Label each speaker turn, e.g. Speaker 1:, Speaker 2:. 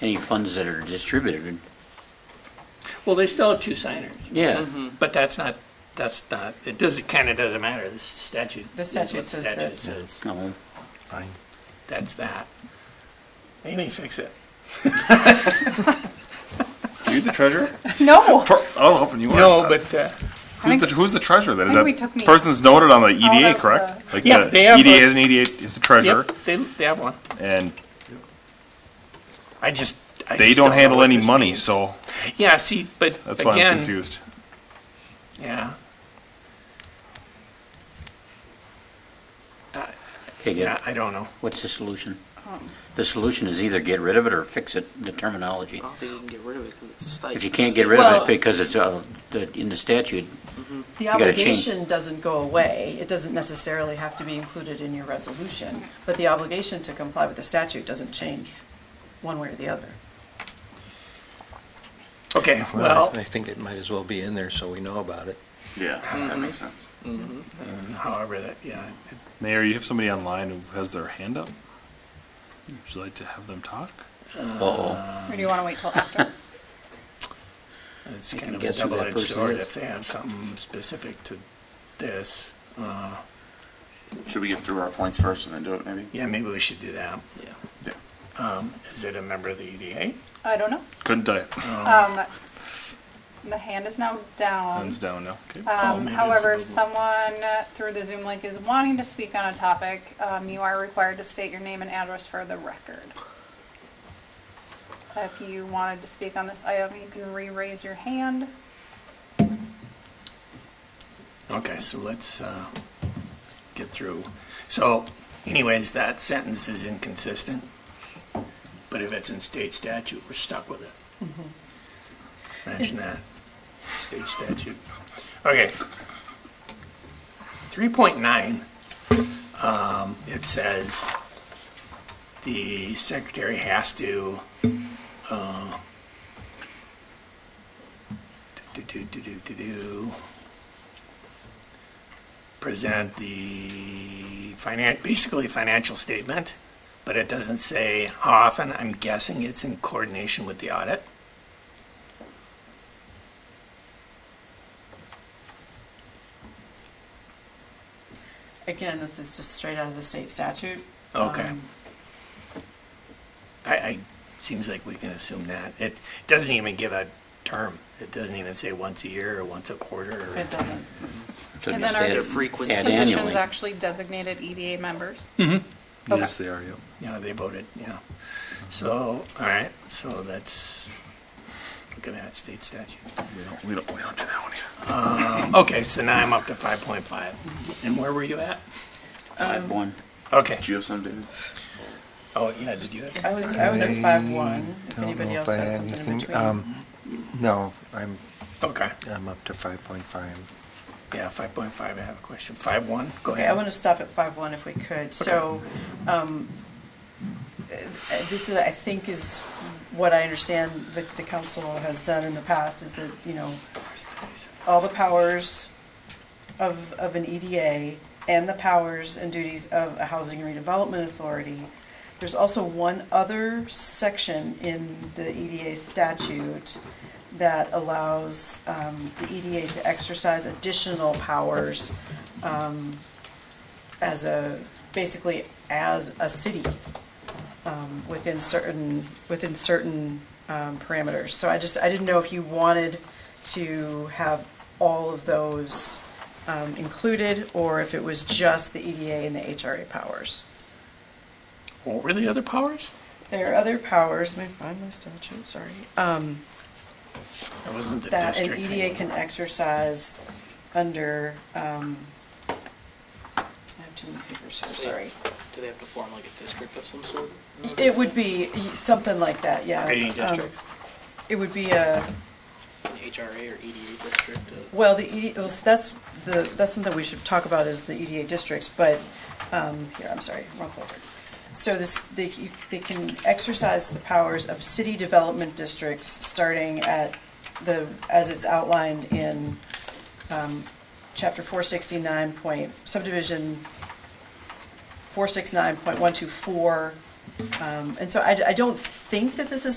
Speaker 1: any funds that are distributed.
Speaker 2: Well, they still have two signers,
Speaker 1: Yeah,
Speaker 2: but that's not, that's not, it does, it kind of doesn't matter, the statute.
Speaker 3: The
Speaker 2: is what
Speaker 3: statute says
Speaker 2: statute
Speaker 3: that.
Speaker 2: says.
Speaker 1: no,
Speaker 4: Fine.
Speaker 2: That's that. Amy, fix it.
Speaker 4: Are you the treasurer?
Speaker 3: No.
Speaker 4: Per- I'll help you. are.
Speaker 2: No, but, uh,
Speaker 4: Who's the, who's the treasurer then? Is
Speaker 3: I think we
Speaker 4: that
Speaker 3: took me-
Speaker 4: person's noted on the
Speaker 3: I'll
Speaker 4: EDA,
Speaker 3: have
Speaker 4: correct? Like uh,
Speaker 2: Yeah,
Speaker 4: the
Speaker 2: they have
Speaker 4: EDA
Speaker 2: a-
Speaker 4: is an EDA, it's the treasurer,
Speaker 2: yep, they, they have one.
Speaker 4: and
Speaker 2: I just. I
Speaker 4: they
Speaker 2: just
Speaker 4: don't
Speaker 2: know
Speaker 4: handle
Speaker 2: what
Speaker 4: any
Speaker 2: this
Speaker 4: money,
Speaker 2: means.
Speaker 4: so
Speaker 2: Yeah, see, but
Speaker 4: that's why I'm
Speaker 2: again,
Speaker 4: confused.
Speaker 2: yeah,
Speaker 1: okay,
Speaker 2: yeah,
Speaker 1: good.
Speaker 2: I don't know.
Speaker 1: what's the solution? The solution is either get rid of it or fix it, the terminology.
Speaker 5: I don't think you can get rid of it because it's a stipend.
Speaker 1: If you can't get rid of
Speaker 3: Well-
Speaker 1: it because it's, uh, the- in the statute, gotta
Speaker 3: The
Speaker 1: change.
Speaker 3: obligation doesn't go away. It doesn't necessarily have to be included in your resolution, but the obligation to comply with the statute doesn't change one way or the other.
Speaker 2: Okay,
Speaker 6: Well,
Speaker 2: well,
Speaker 6: I I think it might as well be in there so we know about it.
Speaker 4: Yeah, that
Speaker 2: Mm-hmm.
Speaker 4: makes sense.
Speaker 2: however, that, yeah,
Speaker 4: Mayor, you have somebody online who has their hand up? Would you like to have them talk?
Speaker 1: uh-oh,
Speaker 7: Or do you want to wait till after?
Speaker 2: it's
Speaker 1: can
Speaker 2: kind of a
Speaker 1: guess who that
Speaker 2: double-edged
Speaker 1: person
Speaker 2: sword
Speaker 1: is.
Speaker 2: if they have something specific to this. Uh,
Speaker 8: Should we get through our points first and then do it, maybe?
Speaker 2: yeah, maybe we should do that.
Speaker 5: Yeah.
Speaker 8: Yeah.
Speaker 2: Um, is it a member of the EDA?
Speaker 7: I don't know.
Speaker 4: Couldn't die.
Speaker 7: Um, the hand is now down.
Speaker 4: Hands down, no. Okay.
Speaker 3: Uh,
Speaker 2: Oh, maybe
Speaker 7: Um,
Speaker 2: it's
Speaker 7: however,
Speaker 2: above
Speaker 7: if
Speaker 2: the-
Speaker 7: someone uh, through the Zoom link is wanting to speak on a topic, um, you are required to state your name and address for the record. If you wanted to speak on this item, you can re-raise your hand.
Speaker 2: Okay, so let's uh, get through. So anyways, that sentence is inconsistent, but if it's in state statute, we're stuck with it. Imagine that, state statute. Okay. 3.9, um, it says the secretary has to uh, do, do, do, do, do, do present the finan, basically financial statement, but it doesn't say how often. I'm guessing it's in coordination with the audit.
Speaker 3: Again, this is just straight out of the state statute.
Speaker 2: Okay.
Speaker 3: Um,
Speaker 2: I, I, seems like we can assume that. It doesn't even give a term. It doesn't even say once a year or once a quarter or.
Speaker 3: It doesn't.
Speaker 1: so just
Speaker 7: And then are
Speaker 1: add-
Speaker 7: the
Speaker 5: frequency-
Speaker 1: Add
Speaker 7: Suggestions
Speaker 1: annually.
Speaker 7: actually designated EDA members. Okay.
Speaker 4: Yes, they are, yep.
Speaker 2: Yeah, they voted, yeah. So, all right, so that's, look at that state statute.
Speaker 4: We don't, we don't, we don't do that one either.
Speaker 2: Okay, so now I'm up to 5.5. And where were you at?
Speaker 1: Five, one.
Speaker 2: Okay.
Speaker 8: Do you have some, David?
Speaker 2: Oh, yeah, did you?
Speaker 3: I was, I was at five one, if
Speaker 6: I don't
Speaker 3: Mm-hmm.
Speaker 6: know
Speaker 3: anybody
Speaker 6: if
Speaker 3: else
Speaker 6: I
Speaker 3: has
Speaker 6: have
Speaker 3: something in
Speaker 6: anything.
Speaker 3: between.
Speaker 6: Um, No, I'm,
Speaker 2: Okay.
Speaker 6: I'm up to 5.5.
Speaker 2: Yeah, five point five, I have a question. Five one, go
Speaker 3: Okay, I
Speaker 2: ahead.
Speaker 3: want to stop at five one if we could. So, um, uh, this is, I think is what I understand that the council has done in the past is that, you know, all the powers of, of an EDA and the powers and duties of a housing redevelopment authority. There's also one other section in the EDA statute that allows um, the EDA to exercise additional powers um, as a, basically as a city um, within certain, within certain um, parameters. So I just, I didn't know if you wanted to have all of those um, included, or if it was just the EDA and the HRA powers.
Speaker 2: What were the other powers?
Speaker 3: There are other powers, let me find my statute, sorry, um,
Speaker 2: That E wasn't the
Speaker 3: that an
Speaker 2: district thing.
Speaker 3: EDA can exercise under, um, I have too many papers here, sorry.
Speaker 5: Do they have to form like a district of some sort?
Speaker 3: It would be something like that, yeah.
Speaker 2: Creating
Speaker 3: Um,
Speaker 2: districts.
Speaker 3: It would be a,
Speaker 5: An HRA or EDA district? uh,
Speaker 3: well, the ED, well, so that's, the, that's something we should talk about is the EDA districts, but, um, here, I'm sorry, wrong folder. So this, they, you- they can exercise the powers of city development districts, starting at the, as it's outlined in, um, chapter four sixty-nine point, subdivision four six nine point one two four. Um, and so I, I don't think that this is